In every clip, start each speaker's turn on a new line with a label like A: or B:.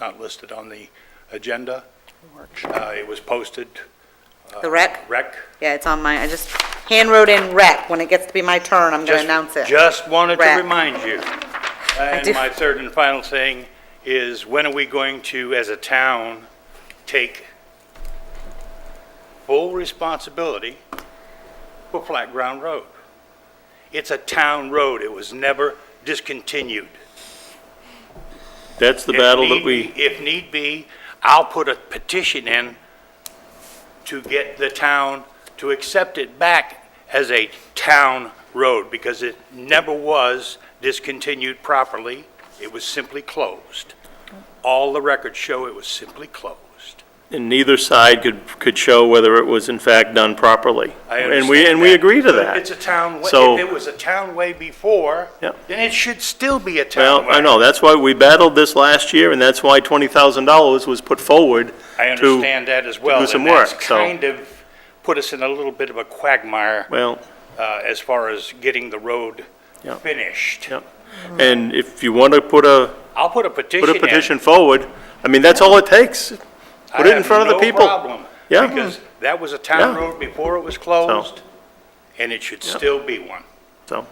A: not listed on the agenda. Uh, It was posted,
B: The rec?
A: rec.
B: Yeah, it's on my, I just hand wrote in rec. When it gets to be my turn, I'm gonna
A: Just-
B: announce it.
A: Just wanted to
B: Rec.
A: remind you. And
B: do.
A: my third and final thing is, when are we going to, as a town, take full responsibility for Flat Ground Road? It's a town road. It was never discontinued.
C: That's the
A: If
C: battle
A: need
C: that we,
A: be- If need be, I'll put a petition in to get the town to accept it back as a town road, because it never was discontinued properly. It was simply closed. All the records show it was simply closed.
C: and neither side could, could show whether it was in fact done properly.
A: I
C: And we,
A: understand
C: and we
A: that.
C: agree to
A: But if
C: that.
A: It's a town, wa-
C: So-
A: if it was a town way before,
C: Yep.
A: then it should still be a town
C: Well,
A: way.
C: I know, that's why we battled this last year, and that's why $20,000 was put forward.
A: I
C: to-
A: understand that as well.
C: do some
A: and that's
C: work, so-
A: kind of put us in a little bit of a quagmire.
C: Well,
A: uh, as far as getting the road
C: Yeah.
A: finished.
C: yeah. And if you want to put a,
A: I'll put a petition
C: put
A: in.
C: a petition forward, I mean, that's all it takes. Put it in front of the people.
A: I have no problem.
C: Yeah.
A: Because that was a town
C: Yeah.
A: road before it was closed, and it should still be one.
C: So,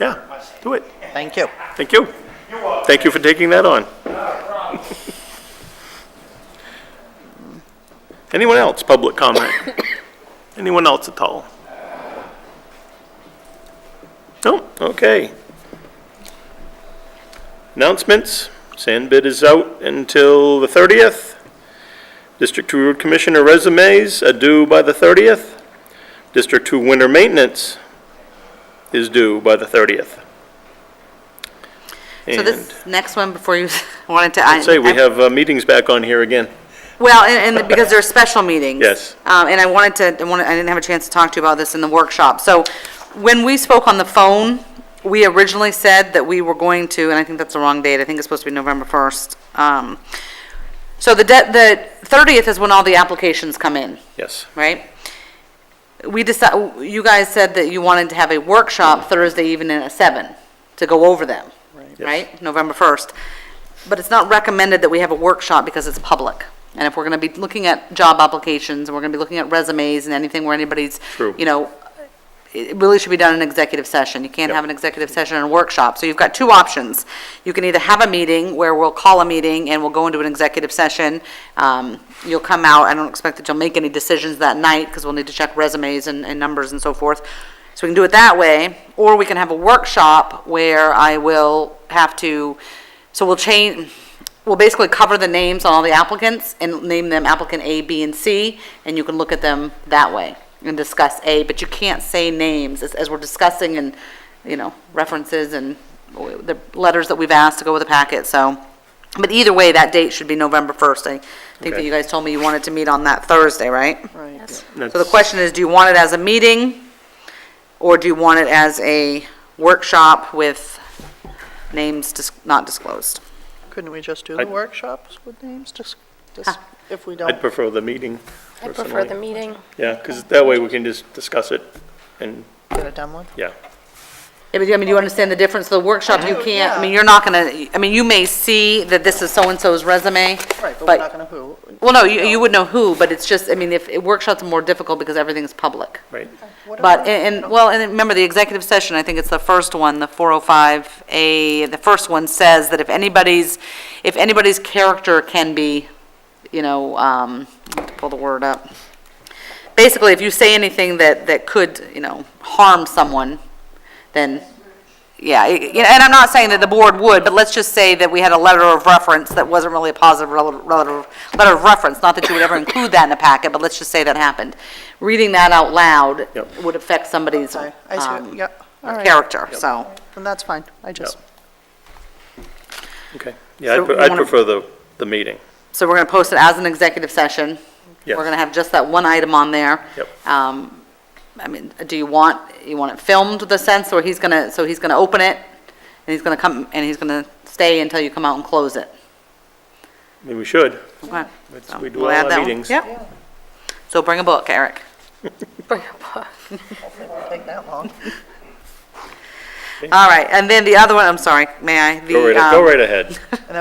C: yeah, do it.
D: Thank you.
C: Thank you. Thank you for taking that on. Anyone else, public comment? Anyone else at all? No, okay. Announcements, sand bid is out until the 30th. District 2 Road Commissioner resumes are due by the 30th. District 2 Winter Maintenance is due by the 30th.
B: So
C: And
B: this next one, before you wanted to. I-
C: say, we have uh, meetings back on here again.
B: Well, and, and because there are special meetings.
C: Yes.
B: Um, and I wanted to, I wanted, I didn't have a chance to talk to you about this in the workshop. So when we spoke on the phone, we originally said that we were going to, and I think that's the wrong date, I think it's supposed to be November 1st. Um, so the, de- the 30th is when all the applications come in,
C: Yes.
B: right? We decide, you guys said that you wanted to have a workshop Thursday evening at seven to go over them, right? November 1st. But it's not recommended that we have a workshop because it's public. And if we're going to be looking at job applications, and we're going to be looking at resumes and anything where anybody's,
C: True.
B: you know, it it really should be done in executive session. You can't have an executive session and a workshop. So you've got two options. You can either have a meeting where we'll call a meeting and we'll go into an executive session. Um, You'll come out, I don't expect that you'll make any decisions that night because we'll need to check resumes and, and numbers and so forth. So we can do it that way, or we can have a workshop where I will have to, so we'll change, we'll basically cover the names on all the applicants and name them applicant A, B, and C, and you can look at them that way and discuss A, but you can't say names as, as we're discussing and, you know, references and the letters that we've asked to go with the packet, so. But either way, that date should be November 1st. I think that
C: Okay.
B: you guys told me you wanted to meet on that Thursday, right?
D: Right.
B: So the question is, do you want it as a meeting, or do you want it as a workshop with names dis- not disclosed?
D: Couldn't we just do
C: I-
D: the workshops with names, just, just, if we
C: I'd
D: don't?
C: prefer the meeting
E: I prefer the
C: personally.
E: meeting.
C: Yeah, because that way we can just discuss it and,
D: Get it done with?
C: yeah.
B: Yeah, but I mean, do you understand the difference? The workshop, you
D: Oh,
B: can't, I mean,
D: yeah.
B: you're not gonna, I mean, you may see that this is so-and-so's resume,
D: Right, but we're not
B: but,
D: gonna who,
B: well, no, you, you would know who, but it's just, I mean, if, workshops are more difficult because everything's public.
C: Right.
B: But, and, and- well, and then remember, the executive session, I think it's the first one, the 405A, the first one says that if anybody's, if anybody's character can be, you know, um, I have to pull the word up. Basically, if you say anything that, that could, you know, harm someone, then, yeah, it- yeah, and I'm not saying that the board would, but let's just say that we had a letter of reference that wasn't really a positive rel- rel- letter of reference, not that you would ever include that in a packet, but let's just say that happened. Reading that out loud
C: Yep.
B: would affect somebody's
D: Okay, I see,
B: um,
D: yep, all right.
B: character, so.
D: Then that's fine, I just,
C: Okay. Yeah, I'd
B: So
C: pre-
B: you
C: I'd
B: wanna-
C: prefer the, the meeting.
B: So we're going to post it as an executive session.
C: Yes.
B: We're going to have just that one item on there.
C: Yep.
B: Um, I mean, do you want, you want it filmed, the sense, or he's going to, so he's going to open it, and he's going to come, and he's going to stay until you come out and close it?
C: I mean, we should.
B: Okay.
C: It's-
B: So
C: We do
B: we'll
C: all
B: add that
C: our
B: one.
C: meetings.
B: Yep. So bring a book, Eric.
E: Bring a book.
D: it won't take that long.
B: All right, and then the other one, I'm sorry, may I?
C: Go
B: The,
C: right, go
B: um,
C: right ahead.